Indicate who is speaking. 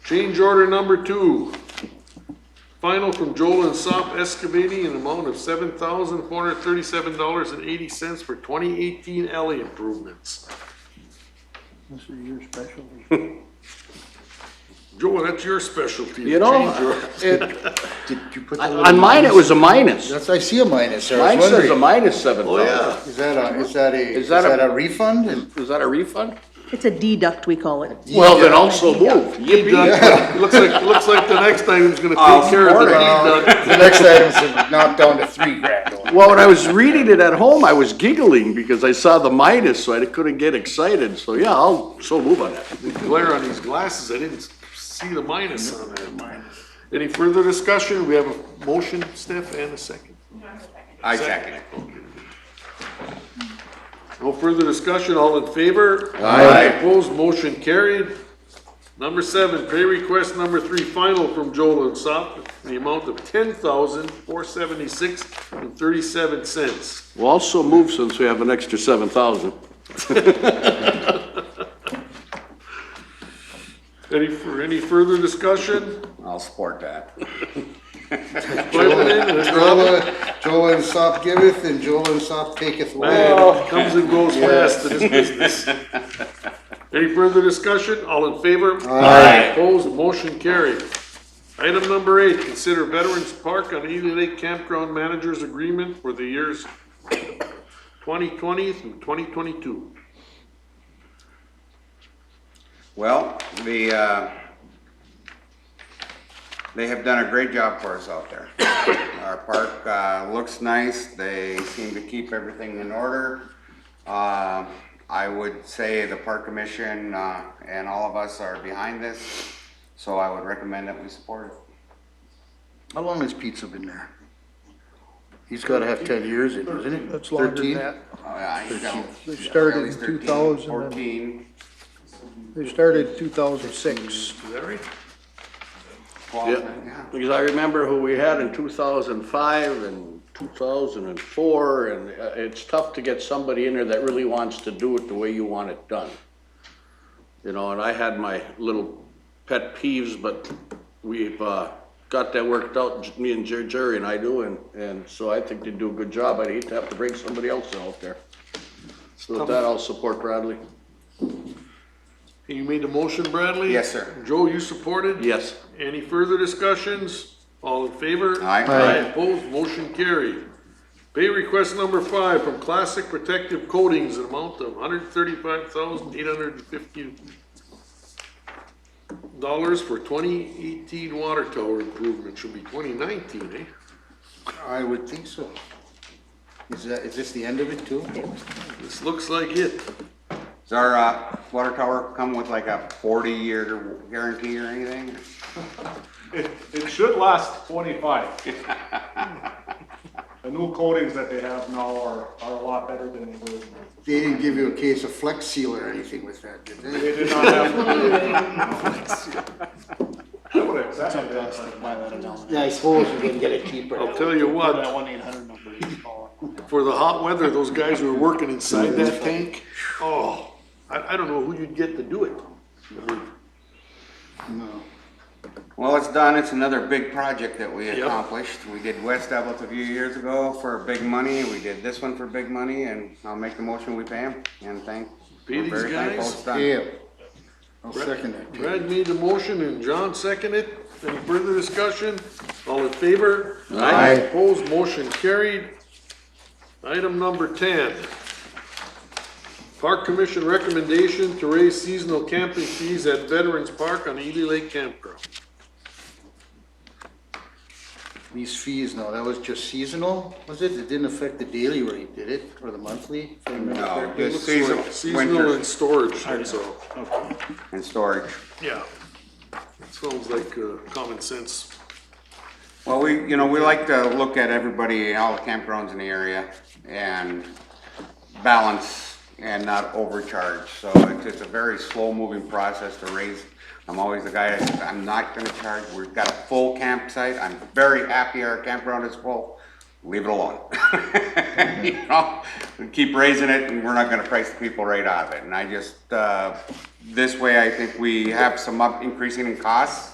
Speaker 1: Change order number two. Final from Joel and Sop excavating an amount of seven thousand four hundred thirty-seven dollars and eighty cents for twenty eighteen alley improvements.
Speaker 2: This is your special.
Speaker 1: Joel, that's your specialty.
Speaker 3: You know,
Speaker 1: change order.
Speaker 3: it,
Speaker 2: Did you put that?
Speaker 3: on mine, it was a minus.
Speaker 2: That's, I see a minus there. I
Speaker 3: Mine
Speaker 2: was
Speaker 3: says a
Speaker 2: wondering,
Speaker 3: minus seven thousand.
Speaker 2: is that a, is that a,
Speaker 3: Is
Speaker 2: is
Speaker 3: that a-
Speaker 2: that a refund?
Speaker 3: Is that a refund?
Speaker 4: It's a deduct, we call it.
Speaker 3: Well, then also move. Yippee.
Speaker 1: Doug, Looks like, looks like the next item's gonna
Speaker 3: Of
Speaker 1: take care of the
Speaker 3: course.
Speaker 1: deed, Doug.
Speaker 2: The next item's knocked down to three grand.
Speaker 3: Well, when I was reading it at home, I was giggling because I saw the minus, so I couldn't get excited. So yeah, I'll, so move on that.
Speaker 1: glare on these glasses, I didn't see the minus on there. Any further discussion? We have a motion, Steph, and a second.
Speaker 5: I second it.
Speaker 1: No further discussion, all in favor?
Speaker 3: Aye.
Speaker 1: Opposed, motion carried. Number seven, pay request number three, final from Joel and Sop, the amount of ten thousand, four seventy-six and thirty-seven cents.
Speaker 3: We'll also move since we have an extra seven thousand.
Speaker 1: Any, for any further discussion?
Speaker 5: I'll support that.
Speaker 2: Joel, uh, Joel and Sop giveth and Joel and Sop taketh away.
Speaker 1: Man, it comes and goes fast in this business. Any further discussion? All in favor?
Speaker 5: Aye.
Speaker 1: Opposed, motion carried. Item number eight, consider Veterans Park on Ely Lake Campground Managers Agreement for the years 2020 through 2022.
Speaker 5: Well, the, uh, they have done a great job for us out there. Our park, uh, looks nice, they seem to keep everything in order. Uh, I would say the park commission, uh, and all of us are behind this, so I would recommend that we support it.
Speaker 2: How long has pizza been there? He's gotta have ten years in, isn't it?
Speaker 6: That's longer than
Speaker 2: 13?
Speaker 6: that.
Speaker 5: Uh, I don't-
Speaker 6: They started
Speaker 5: at least
Speaker 6: in
Speaker 5: 13,
Speaker 6: 2000 and-
Speaker 5: 14,
Speaker 6: They started in two thousand six.
Speaker 1: Is that right?
Speaker 5: 12, yeah.
Speaker 3: Yeah, because I remember who we had in two thousand five and two thousand and four, and uh, it's tough to get somebody in there that really wants to do it the way you want it done. You know, and I had my little pet peeves, but we've, uh, got that worked out, J- me and Jer- Jerry and I do, and, and so I think they do a good job. I'd hate to have to bring somebody else out there. So with that, I'll support Bradley.
Speaker 1: You made the motion, Bradley?
Speaker 5: Yes, sir.
Speaker 1: Joe, you supported?
Speaker 3: Yes.
Speaker 1: Any further discussions? All in favor?
Speaker 5: Aye. Aye.
Speaker 1: Opposed, motion carried. Pay request number five from Classic Protective Coatings, an amount of hundred thirty-five thousand eight hundred and fifty dollars for twenty eighteen water tower improvement, should be twenty nineteen, eh?
Speaker 2: I would think so. Is that, is this the end of it too?
Speaker 1: This looks like it.
Speaker 5: Does our, uh, water tower come with like a forty-year guarantee or anything?
Speaker 7: It, it should last twenty-five. The new coatings that they have now are, are a lot better than they were.
Speaker 2: They didn't give you a case of Flex Seal or anything with that, did they?
Speaker 7: They did not have. I would have accepted that, but
Speaker 2: Yeah, I suppose we can get it cheaper.
Speaker 1: I'll tell you what,
Speaker 6: one eight hundred number you call.
Speaker 1: for the hot weather, those guys were working inside that tank. Oh, I, I don't know who you'd get to do it.
Speaker 2: No.
Speaker 5: Well, it's done. It's another big project that we
Speaker 1: Yep.
Speaker 5: accomplished. We did West Evans a few years ago for big money. We did this one for big money and I'll make the motion we pay him and thank.
Speaker 1: Pay
Speaker 5: we're
Speaker 1: these
Speaker 5: very thankful
Speaker 1: guys?
Speaker 5: it's done.
Speaker 2: Yeah. I'll second that.
Speaker 1: Brad made the motion and John seconded it. Any further discussion? All in favor?
Speaker 3: Aye.
Speaker 1: Opposed, motion carried. Item number ten. Park Commission recommendation to raise seasonal camping fees at Veterans Park on Ely Lake Campground.
Speaker 2: These fees, no, that was just seasonal, was it? It didn't affect the daily rate, did it? Or the monthly? if I remember
Speaker 5: No,
Speaker 2: correctly?
Speaker 5: just seasonal,
Speaker 1: Seasonal
Speaker 5: winter
Speaker 1: and storage, that's all.
Speaker 5: and storage.
Speaker 1: Yeah. Sounds like uh, common sense.
Speaker 5: Well, we, you know, we like to look at everybody, all the campgrounds in the area and balance and not overcharge. So it's, it's a very slow moving process to raise. I'm always the guy that says, I'm not gonna charge. We've got a full campsite. I'm very happy our campground is full. leave it alone. You know, we Keep raising it and we're not gonna price the people right out of it. And I just, uh, this way I think we have some up, increasing in costs